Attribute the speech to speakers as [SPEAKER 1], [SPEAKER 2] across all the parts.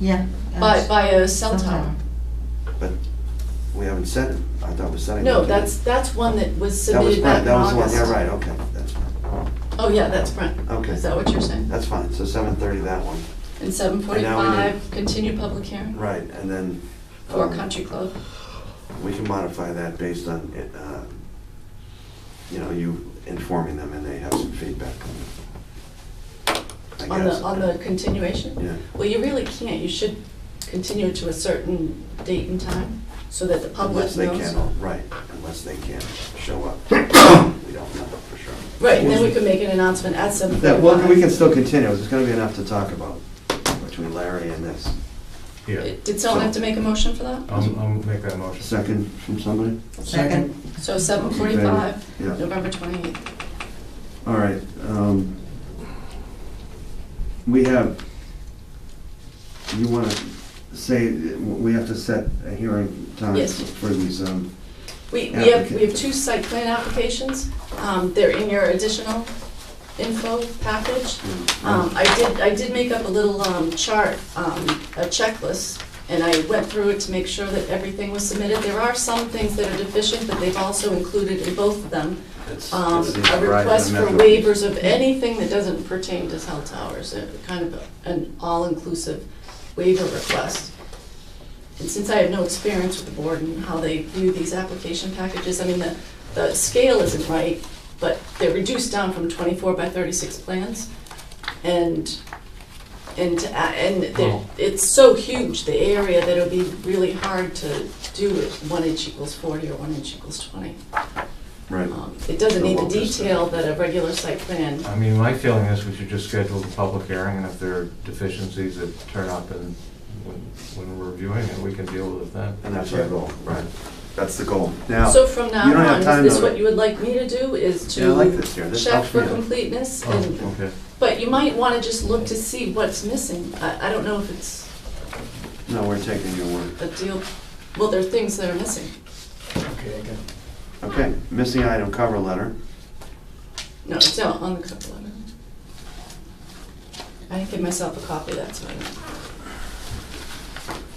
[SPEAKER 1] Yeah.
[SPEAKER 2] by, by a cell tower.
[SPEAKER 1] Sometime.
[SPEAKER 3] But we haven't said it. I thought we said it.
[SPEAKER 2] No, that's, that's one that was
[SPEAKER 3] That was
[SPEAKER 2] submitted back
[SPEAKER 3] Brent,
[SPEAKER 2] in
[SPEAKER 3] that was the one,
[SPEAKER 2] August.
[SPEAKER 3] yeah, right, okay, that's fine,
[SPEAKER 2] Oh, yeah, that's Brent.
[SPEAKER 3] Okay.
[SPEAKER 2] Is that what you're saying?
[SPEAKER 3] that's fine, so seven thirty, that one,
[SPEAKER 2] And seven forty-five, continued public hearing
[SPEAKER 3] right, and then.
[SPEAKER 2] for
[SPEAKER 3] um,
[SPEAKER 2] Country Club.
[SPEAKER 3] We can modify that based on, it, uh, you know, you informing them and they have some feedback on it. I
[SPEAKER 2] On the,
[SPEAKER 3] guess.
[SPEAKER 2] on the continuation?
[SPEAKER 3] Yeah,
[SPEAKER 2] Well, you really can't, you should continue to a certain date and time, so that the public
[SPEAKER 3] unless
[SPEAKER 2] knows.
[SPEAKER 3] they can, right, unless they can show up, we don't know for sure.
[SPEAKER 2] Right, and then we can make an announcement at seven
[SPEAKER 3] That,
[SPEAKER 2] forty-five.
[SPEAKER 3] well, we can still continue, there's gonna be enough to talk about between Larry and this.
[SPEAKER 4] Yeah,
[SPEAKER 2] Did someone have to make a motion for that?
[SPEAKER 4] I'll, I'll make that motion.
[SPEAKER 3] Second from somebody?
[SPEAKER 1] Second.
[SPEAKER 2] So seven forty-five,
[SPEAKER 3] Yeah.
[SPEAKER 2] November twenty-eighth.
[SPEAKER 3] All right. um, We have, you want to say, we have to set a hearing time
[SPEAKER 2] Yes.
[SPEAKER 3] for these, um,
[SPEAKER 2] We, we have, we
[SPEAKER 3] Applicant.
[SPEAKER 2] have two site plan applications, um, they're in your additional info package. Um, I did, I did make up a little, um, chart, um, a checklist, and I went through it to make sure that everything was submitted. There are some things that are deficient, but they've also included in both of them,
[SPEAKER 3] it's-
[SPEAKER 2] um,
[SPEAKER 3] it's the
[SPEAKER 2] a
[SPEAKER 3] horizon
[SPEAKER 2] request for
[SPEAKER 3] measurement.
[SPEAKER 2] waivers of anything that doesn't pertain to cell towers, a kind of an all-inclusive waiver request. And since I have no experience with the board and how they view these application packages, I mean, the, the scale isn't right, but they're reduced down from twenty-four by thirty-six plans. And, and, to a- and they're-
[SPEAKER 4] Oh.
[SPEAKER 2] it's so huge, the area, that it'll be really hard to do it, one inch equals forty or one inch equals twenty.
[SPEAKER 3] Right.
[SPEAKER 2] Um, It doesn't
[SPEAKER 3] The
[SPEAKER 2] need the
[SPEAKER 3] local stuff.
[SPEAKER 2] detail that a regular site plan,
[SPEAKER 4] I mean, my feeling is we should just schedule the public hearing, and if there are deficiencies that turn up and when, when we're reviewing it, we can deal with it then.
[SPEAKER 3] And that's our goal, right? That's the goal. Now,
[SPEAKER 2] so from now
[SPEAKER 3] you don't have
[SPEAKER 2] on,
[SPEAKER 3] time
[SPEAKER 2] is this
[SPEAKER 3] to-
[SPEAKER 2] what you would like me to do, is
[SPEAKER 3] yeah, I like
[SPEAKER 2] to
[SPEAKER 3] this here. This
[SPEAKER 2] check
[SPEAKER 3] helps me
[SPEAKER 2] for
[SPEAKER 3] out.
[SPEAKER 2] completeness? and-
[SPEAKER 4] Oh, okay.
[SPEAKER 2] But you might wanna just look to see what's missing, I, I don't know if it's
[SPEAKER 3] No, we're taking your word.
[SPEAKER 2] a deal, well, there are things that are missing.
[SPEAKER 3] Okay, missing item cover letter.
[SPEAKER 2] No, it's not on the cover letter. I didn't give myself a copy, that's why.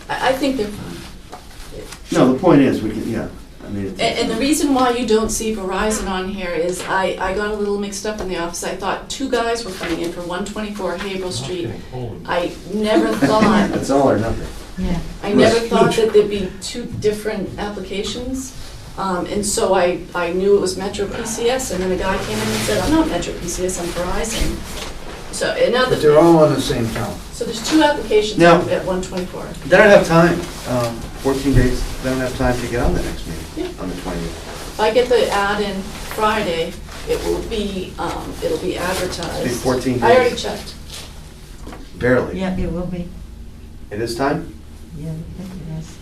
[SPEAKER 2] I, I think they're fine.
[SPEAKER 3] No, the point is, we can, yeah, I mean. it's-
[SPEAKER 2] And, and the reason why you don't see Verizon on here is I, I got a little mixed up in the office. I thought two guys were coming in for one twenty-four Haverhill Street.
[SPEAKER 4] Okay, holy-
[SPEAKER 2] I never thought,
[SPEAKER 3] It's all or nothing.
[SPEAKER 1] Yeah.
[SPEAKER 2] I never
[SPEAKER 3] Right.
[SPEAKER 2] thought that there'd be two different applications. Um, and so I, I knew it was Metro PCS, and then a guy came in and said, I'm not Metro PCS, I'm Verizon. So, and now
[SPEAKER 5] But they're
[SPEAKER 2] that,
[SPEAKER 5] all on the same count.
[SPEAKER 2] so there's two applications
[SPEAKER 3] Now-
[SPEAKER 2] at one twenty-four.
[SPEAKER 3] They don't have time, um, fourteen days, they don't have time to get on the next meeting,
[SPEAKER 2] Yeah.
[SPEAKER 3] on the twentieth.
[SPEAKER 2] If I get the ad in Friday, it will be, um, it'll be advertised.
[SPEAKER 3] 14
[SPEAKER 2] I already
[SPEAKER 3] days.
[SPEAKER 2] checked.
[SPEAKER 3] Barely.
[SPEAKER 1] Yeah, it will be.
[SPEAKER 3] It is time?
[SPEAKER 1] Yeah, I think it is.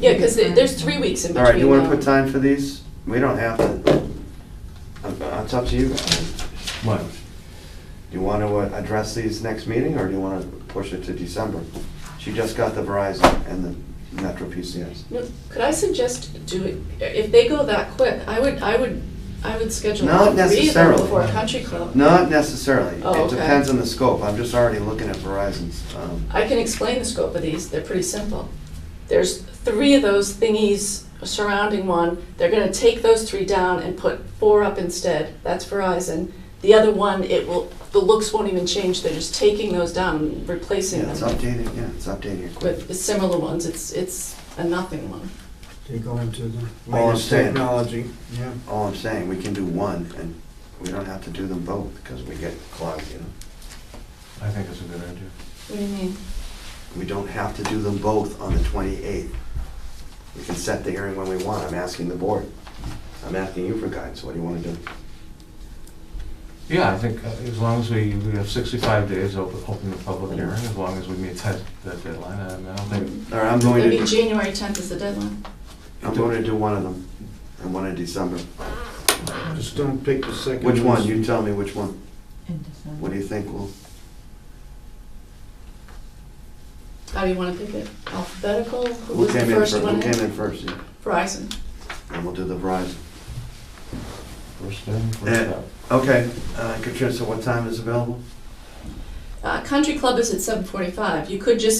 [SPEAKER 2] Yeah, because there's three weeks in
[SPEAKER 3] All
[SPEAKER 2] between. uh,
[SPEAKER 3] right, you wanna
[SPEAKER 2] now.
[SPEAKER 3] put time for these? We don't have to. Um, uh, It's up to you. Do
[SPEAKER 4] What?
[SPEAKER 3] you wanna uh, address these next meeting, or do you wanna push it to December? She just got the Verizon and the Metro PCS.
[SPEAKER 2] No, Could I suggest do it, if they go that quick, I would, I would, I would schedule.
[SPEAKER 3] Not
[SPEAKER 2] three of them
[SPEAKER 3] necessarily.
[SPEAKER 2] Before a country club.
[SPEAKER 3] Not necessarily.
[SPEAKER 2] Oh,
[SPEAKER 3] It
[SPEAKER 2] okay.
[SPEAKER 3] depends on the scope. I'm just already looking at Verizon's, um,
[SPEAKER 2] I can explain the scope of these, they're pretty simple. There's three of those thingies surrounding one, they're gonna take those three down and put four up instead, that's Verizon. The other one, it will, the looks won't even change, they're just taking those down and replacing
[SPEAKER 3] yeah, it's
[SPEAKER 2] them
[SPEAKER 3] updating, yeah, it's updating it quick.
[SPEAKER 2] with similar ones, it's, it's a nothing one.
[SPEAKER 5] They go into the
[SPEAKER 3] All I'm
[SPEAKER 5] latest
[SPEAKER 3] saying.
[SPEAKER 5] technology, yeah.
[SPEAKER 3] All I'm saying, we can do one, and we don't have to do them both, because we get clogged, you know?
[SPEAKER 4] I think it's a good idea.
[SPEAKER 2] What do you mean?
[SPEAKER 3] We don't have to do them both on the 28th. We can set the hearing when we want. I'm asking the board. I'm asking you for guidance. What do you want to do?
[SPEAKER 4] Yeah, I think uh, as long as we, we have sixty-five days open, open the public hearing, as long as we meet that, that deadline, I mean, I don't think,
[SPEAKER 3] All right, I'm going
[SPEAKER 2] Maybe
[SPEAKER 3] to,
[SPEAKER 2] January tenth is the deadline.
[SPEAKER 3] I'm going to do one of them, and one in December.
[SPEAKER 5] Just don't pick the second.
[SPEAKER 3] Which one?
[SPEAKER 5] most-
[SPEAKER 3] You tell me which one.
[SPEAKER 1] In December.
[SPEAKER 3] What do you think will,
[SPEAKER 2] How do you want to pick it? Alphabetical? Who
[SPEAKER 3] who
[SPEAKER 2] was the
[SPEAKER 3] came in
[SPEAKER 2] first
[SPEAKER 3] first? Who
[SPEAKER 2] one
[SPEAKER 3] came
[SPEAKER 2] in?
[SPEAKER 3] in first, yeah.
[SPEAKER 2] Verizon.
[SPEAKER 3] And we'll do the Verizon.
[SPEAKER 4] first in, first
[SPEAKER 3] Yeah.
[SPEAKER 4] out.
[SPEAKER 3] Okay, uh, Katrina, so what time is available?
[SPEAKER 2] Uh, Country Club is at seven forty-five. You could just